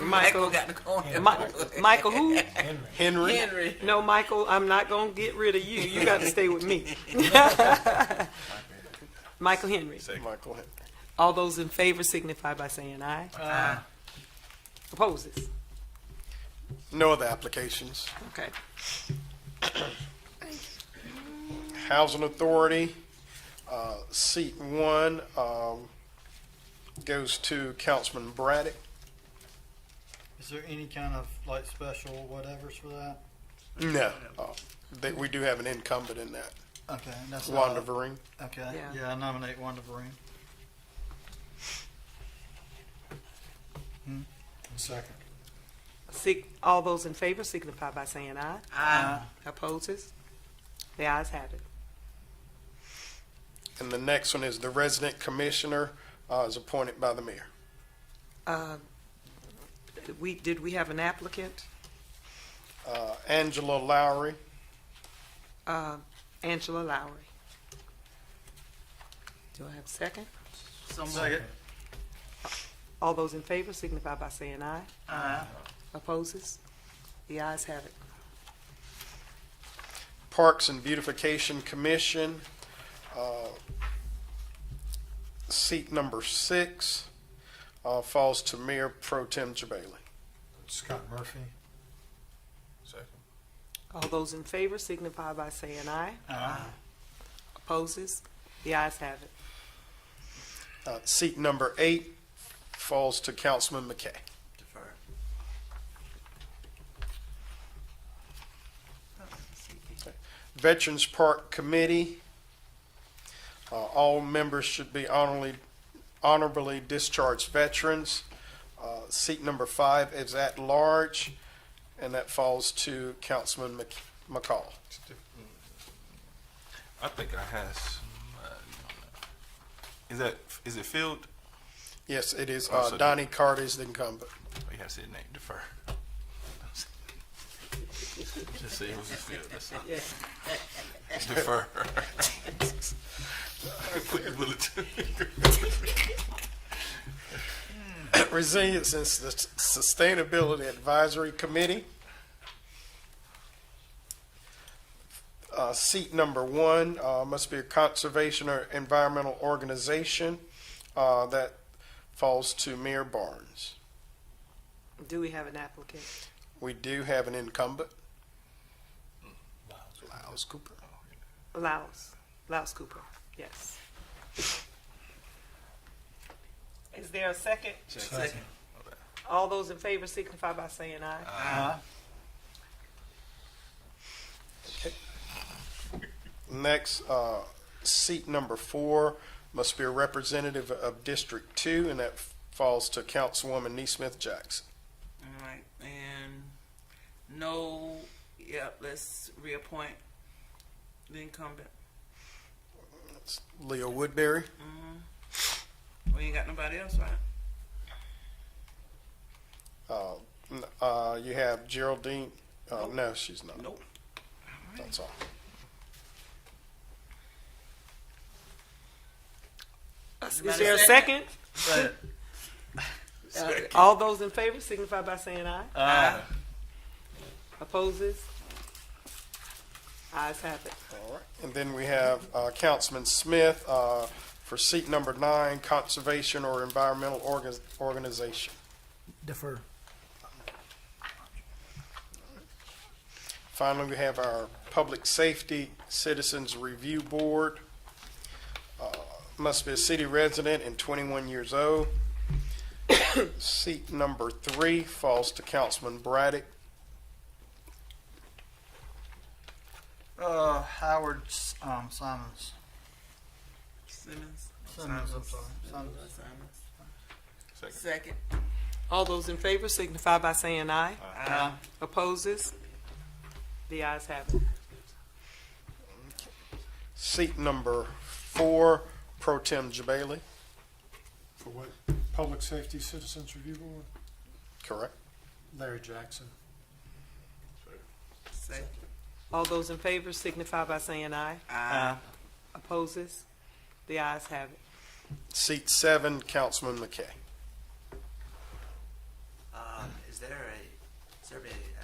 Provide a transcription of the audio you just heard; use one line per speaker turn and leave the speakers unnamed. Michael.
got to call him.
Mi- Michael who?
Henry.
Henry.
Henry.
No, Michael, I'm not gonna get rid of you. You got to stay with me. Michael Henry.
Michael Henry.
All those in favor signify by saying aye.
Uh,
Opposes?
No other applications.
Okay.
Housing Authority, uh, seat one, um, goes to Councilman Braddock.
Is there any kind of like special whatevers for that?
No. Uh, That, we do have an incumbent in that,
Okay, that's uh,
Wanda Vereen.
Okay,
Yeah.
yeah, I nominate Wanda Vereen. Hmm?
second.
Sig- all those in favor signify by saying aye.
Uh,
Ah,
Opposes? The ayes have it.
And the next one is the resident commissioner, uh, is appointed by the mayor.
Uh, did we, did we have an applicant?
Uh, Angela Lowry,
Uh, Angela Lowry. Do I have a second?
Second.
All those in favor signify by saying aye. Aye. Opposes? The ayes have it.
Parks and Beautification Commission, uh, seat number six, uh, falls to Mayor Pro Tem Jabali.
Scott Murphy. Second.
All those in favor signify by saying aye. Aye. Opposes? The ayes have it.
Uh, seat number eight falls to Councilman McKay.
defer.
Veterans Park Committee, uh, all members should be honorably, honorably discharged veterans. Uh, seat number five is at large, and that falls to Councilman Mc- McCall.
I think I have somebody on that. Is that is it filled?
Yes, it is, uh,
Also-
Donnie Carter is the incumbent.
Oh, you have to say the name. Defer. Just say it was filled. That's all. Defer. Put your bulletin.
Resilience and Sus- Sustainability Advisory Committee. Uh, seat number one, uh, must be a conservation or environmental organization, uh, that falls to Mayor Barnes.
Do we have an applicant?
We do have an incumbent. Lyles Cooper.
Laos, Laos Cooper, yes. Is there a second?
Second.
All those in favor signify by saying aye.
Next, uh, seat number four must be a representative of District Two, and that falls to Councilwoman Neesmith Jackson.
All right, and no, yep, let's reappoint the incumbent.
That's Leo Woodbury.
We ain't got nobody else, right?
Uh, n- uh, you have Geraldine. Uh, no, she's not.
Nope.
That's all.
Is
Everybody
there a second?
Second.
All those in favor signify by saying aye.
Aye.
Opposes? Ayes have it.
All right. And then we have uh, Councilman Smith uh, for seat number nine, Conservation or Environmental Organ- Organization.
Defer.
Finally, we have our Public Safety Citizens Review Board. Uh, Must be a city resident and 21 years old. Seat number three falls to Councilman Braddock.
Uh, Howard S- um, Simons.
Simmons.
Simmons, I'm sorry. Simmons.
Simmons.
Second.
Second.
All those in favor signify by saying aye.
Aye.
Opposes? The ayes have it.
Seat number four, Pro Tem Jabali.
For what? Public Safety Citizens Review Board?
Correct.
Larry Jackson.
Second.
All those in favor signify by saying aye.
Uh,
Aye.
Opposes? The ayes have it.
Seat seven, Councilman McKay.
Um, there a, is there a,